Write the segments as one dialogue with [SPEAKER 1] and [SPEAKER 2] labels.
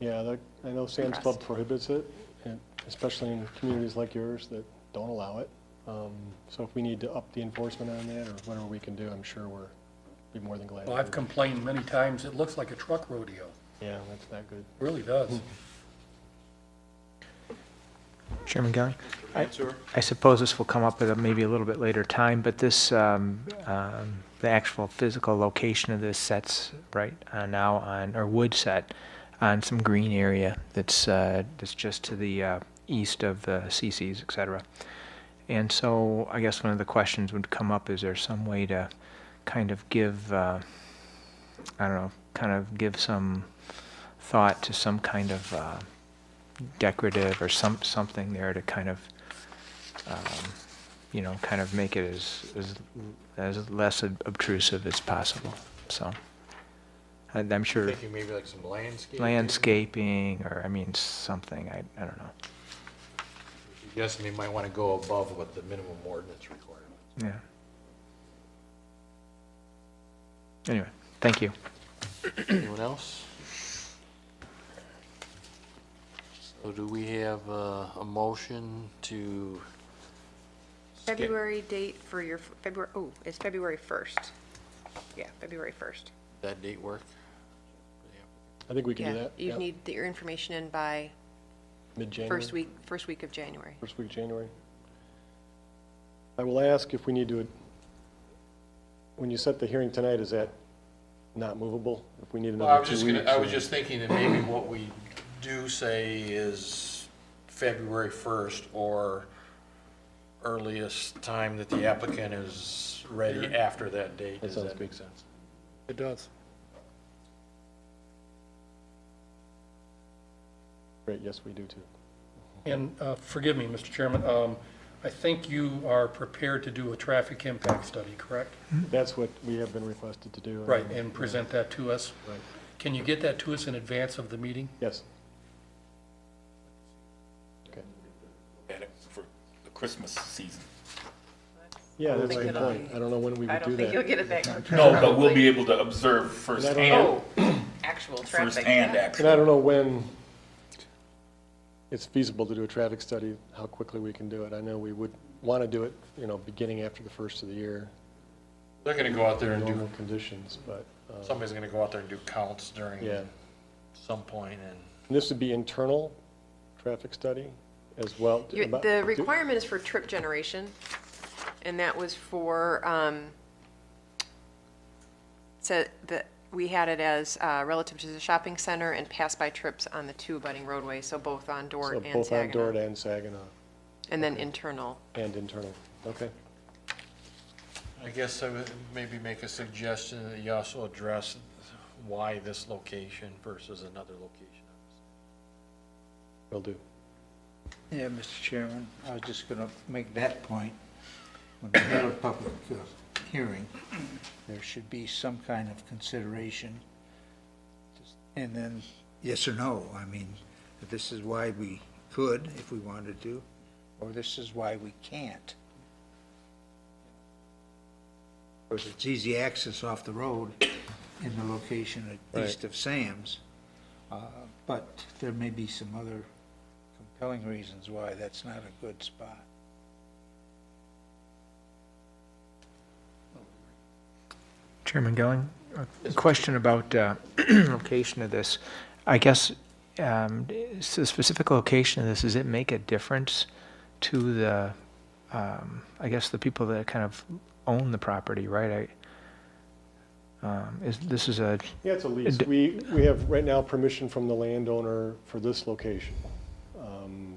[SPEAKER 1] Yeah, that- I know Sam's Club prohibits it, and especially in communities like yours that don't allow it. Um, So if we need to up the enforcement on that, or whatever we can do, I'm sure we're, be more than glad. to
[SPEAKER 2] Well, I've
[SPEAKER 1] do it.
[SPEAKER 2] complained many times, it looks like a truck rodeo,
[SPEAKER 1] Yeah, that's not good.
[SPEAKER 2] really does.
[SPEAKER 3] Chairman Gowen? I- I suppose this will come up at a maybe a little bit later time, but this, um, um, the actual physical location of this sets right uh, now on, or would set on some green area that's, uh, that's just to the uh, east of the CCs, et cetera. And so I guess one of the questions would come up, is there some way to kind of give, uh, I don't know, kind of give some thought to some kind of uh, decorative or some, something there to kind of, um, you know, kind of make it as, as, as less ob- obtrusive as possible, so. And I'm sure
[SPEAKER 4] Thinking maybe like some landscaping?
[SPEAKER 3] landscaping, or, I mean, something, I, I don't know,
[SPEAKER 4] Guessing they might want to go above what the minimum ordinance requirement.
[SPEAKER 3] yeah. Anyway, thank you.
[SPEAKER 4] Anyone else? So do we have uh, a motion to? skip-
[SPEAKER 5] February date for your, February, oh, it's February 1st. Yeah, February 1st.
[SPEAKER 4] That date work?
[SPEAKER 1] I think we can do
[SPEAKER 5] Yeah,
[SPEAKER 1] that.
[SPEAKER 5] you
[SPEAKER 1] yeah.
[SPEAKER 5] need the- your information in by
[SPEAKER 1] Mid-January.
[SPEAKER 5] first week, first week of January.
[SPEAKER 1] First week, of January. I will ask if we need to, when you set the hearing tonight, is that not movable? If we need
[SPEAKER 4] Well, I
[SPEAKER 1] another
[SPEAKER 4] was
[SPEAKER 1] two weeks?
[SPEAKER 4] just gonna, I was
[SPEAKER 1] or-
[SPEAKER 4] just thinking that maybe what we do say is February first or earliest time that the applicant is ready after that date.
[SPEAKER 1] That
[SPEAKER 4] Does
[SPEAKER 1] sounds
[SPEAKER 4] that make sense?
[SPEAKER 2] It does.
[SPEAKER 1] Great, yes, we do too.
[SPEAKER 2] And uh, forgive me, Mr. Chairman, um, I think you are prepared to do a traffic impact study, correct?
[SPEAKER 1] That's what we have been requested to do.
[SPEAKER 2] Right, and present that to us.
[SPEAKER 1] Right.
[SPEAKER 2] Can you get that to us in advance of the meeting?
[SPEAKER 1] Yes. Okay.
[SPEAKER 6] at it for the Christmas season.
[SPEAKER 1] Yeah, that's a
[SPEAKER 5] think
[SPEAKER 1] good
[SPEAKER 5] it'll
[SPEAKER 1] point. I don't know when we would do that.
[SPEAKER 5] get it back.
[SPEAKER 6] No, but we'll be able to observe firsthand,
[SPEAKER 5] Oh, actual
[SPEAKER 6] firsthand
[SPEAKER 1] And I
[SPEAKER 6] actually.
[SPEAKER 1] don't know when it's feasible to do a traffic study, how quickly we can do it. I know we would want to do it, you know, beginning after the first of the year,
[SPEAKER 4] They're gonna go out there and do,
[SPEAKER 1] normal conditions, but, uh,
[SPEAKER 4] somebody's gonna go out there and do counts during
[SPEAKER 1] yeah.
[SPEAKER 4] some point and.
[SPEAKER 1] And this would be internal traffic study as well? About-
[SPEAKER 5] The requirement is for trip generation, and that was for, um, so that, we had it as uh, relative to the shopping center and pass-by trips on the two abutting roadways, so both on
[SPEAKER 1] so
[SPEAKER 5] Dort and
[SPEAKER 1] Both on Dort
[SPEAKER 5] Saginaw.
[SPEAKER 1] and Saginaw,
[SPEAKER 5] And then internal.
[SPEAKER 1] and internal, okay.
[SPEAKER 4] I guess I would maybe make a suggestion that you also address why this location versus another location.
[SPEAKER 1] Will do.
[SPEAKER 7] Yeah, Mr. Chairman, I was just going to make that point. When we have a public uh, hearing, there should be some kind of consideration. And then, yes or no, I mean, this is why we could if we wanted to, or this is why we can't. Of course, it's easy access off the road in the location at east of Sam's. uh, But there may be some other compelling reasons why that's not a good spot.
[SPEAKER 3] Chairman Gelling, a question about uh, location of this. I guess, um, is the specific location of this, does it make a difference to the, um, I guess, the people that kind of own the property, right? I- um, Is, this is a,
[SPEAKER 1] Yeah, it's a lease.
[SPEAKER 3] d-
[SPEAKER 1] We, we have right now permission from the landowner for this location. Um,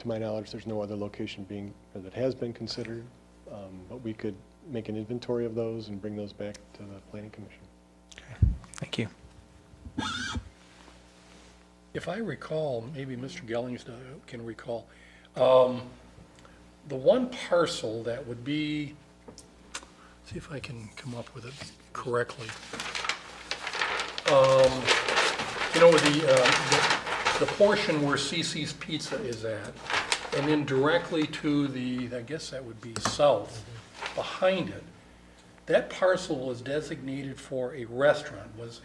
[SPEAKER 1] To my knowledge, there's no other location being, or that has been considered, um, but we could make an inventory of those and bring those back to the planning commission.
[SPEAKER 3] thank you.
[SPEAKER 2] If I recall, maybe Mr. Gellings can recall, um, the one parcel that would be, see if I can come up with it correctly. Um, You know, the, uh, the the portion where CC's Pizza is at, and then directly to the, I guess that would be south, behind it, that parcel was designated for a restaurant, was